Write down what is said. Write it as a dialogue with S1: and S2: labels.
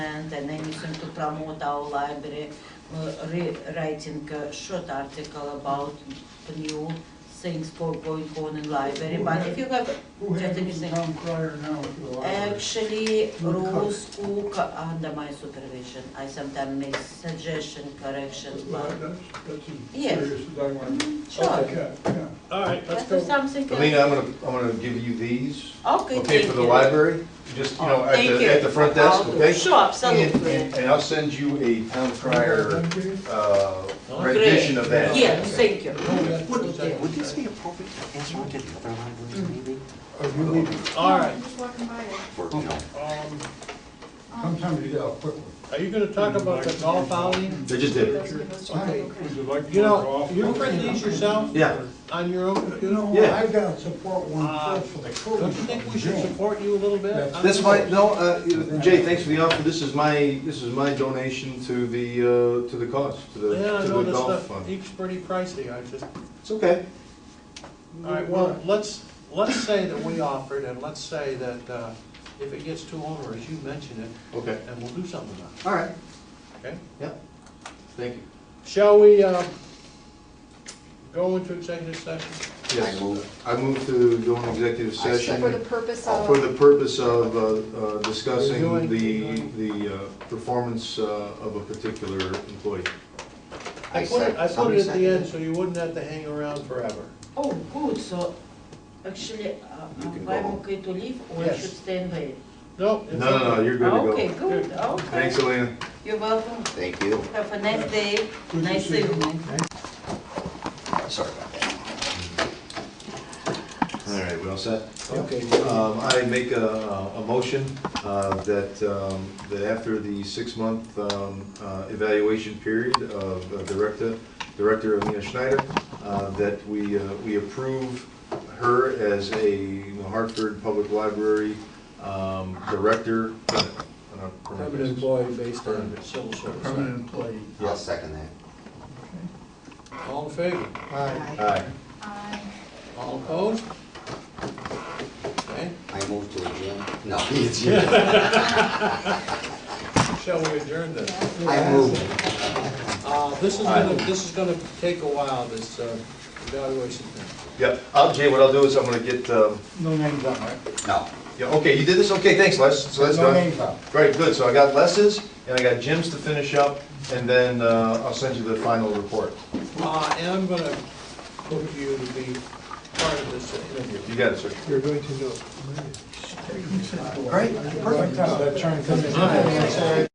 S1: event and anything to promote our library, uh, rewriting a short eh, article about the new things for going on in library, but if you have
S2: Who
S1: just
S2: handles the
S1: anything.
S2: town crier now at the library?
S1: Actually,
S2: Not covered.
S1: rules cook under my supervision. I sometimes make suggestion, corrections,
S2: Well,
S1: but,
S2: That's, that's
S1: Yes. Mm-hmm,
S2: as serious as I want to.
S1: sure.
S2: Okay, yeah.
S3: All right, let's
S1: That's
S3: go.
S1: something. else.
S4: Alina, I'm gonna, I'm gonna give you these,
S1: Okay,
S4: okay, for
S1: thank
S4: the
S1: you.
S4: library, just, you know, at
S1: Thank you.
S4: the, at the front desk,
S1: I'll do.
S4: okay?
S1: Sure,
S4: And,
S1: absolutely.
S4: and- and I'll send you a town crier, uh,
S1: Great.
S4: rendition of that.
S1: Yeah, thank you.
S2: Would-
S5: Would this be appropriate to ask one of the other libraries maybe?
S2: Are Oh, you leaving?
S3: All right,
S6: Just walking by it.
S5: For, you know,
S3: um,
S2: Sometimes you get out quickly.
S3: are you gonna talk about the golf outing?
S4: They just did it.
S6: Does give us a-
S2: Okay.
S6: okay.
S2: Would you like to
S3: You
S2: go
S3: know,
S2: off?
S3: you print these yourself
S4: Yeah,
S3: on your own
S2: You
S3: computer?
S2: know,
S4: Yeah.
S2: I've got to support
S3: Uh,
S2: one first for the crew.
S3: Don't you think we should support you a little bit?
S2: That's-
S4: that's my, no, uh, Jay, thanks for the offer, this is my, this is my donation to the, uh, to the cause, to the,
S3: Yeah, I
S4: to
S3: know
S4: the
S3: this
S4: golf
S3: stuff,
S4: fund.
S3: each pretty pricey, I just, all
S4: It's okay.
S3: right, well, let's, let's say that we offered, and let's say that, uh, if it gets too onerous, you mention it,
S4: Okay,
S3: and we'll do something about it,
S4: all right,
S3: okay?
S4: yeah, thank you.
S3: Shall we, uh, go into executive session?
S4: Yes,
S5: I move.
S4: I move to go into executive
S5: I
S4: session.
S6: For the purpose of.
S4: For the purpose of uh, uh,
S3: Doing-
S4: discussing the,
S3: doing-
S4: the uh, performance uh, of a particular employee.
S3: I put it, I put it at the end, so you wouldn't have to hang around forever.
S1: Oh, good, so actually, uh,
S5: You can go
S1: I'm
S5: home.
S1: okay to leave or I
S3: Yes.
S1: should stay and wait?
S3: No?
S4: No, no, no, you're good
S1: Okay,
S4: to go.
S1: good, okay.
S4: Thanks, Elena.
S1: You're welcome.
S5: Thank you.
S1: Have a nice day,
S2: Good to
S1: nice
S2: see you.
S1: evening.
S5: Sorry about that.
S4: All right, we all set?
S2: Okay.
S4: Um, I make a, a motion uh, that, um, that after the six-month um, uh, evaluation period of uh, Director, Director Alina Schneider, uh, that we, uh, we approve her as a New Hartford Public Library um, Director. on a permanent
S3: Permanent
S4: basis.
S3: employee based on civil service.
S2: Permanent employee.
S5: I'll second that.
S3: All in favor?
S2: Aye.
S4: Aye.
S6: Aye.
S3: All opposed? Okay,
S5: I move to adjourn. No, it's you. I
S3: shall we adjourn then?
S5: move.
S3: Uh, this is gonna, this is gonna take a while, this uh, evaluation thing.
S4: Yep, I'll, Jay, what I'll do is I'm gonna get, um,
S2: No names on, right?
S5: No.
S4: yeah, okay, you did this, okay, thanks, Les, so that's
S2: No
S4: done.
S2: names on.
S4: Great, good, so I got Les's, and I got Jim's to finish up, and then, uh, I'll send you the final report.
S3: Uh, and I'm gonna put you to be part of this interview.
S4: You got it, sir.
S7: You're going to know.
S2: Great, perfect. That turn comes in.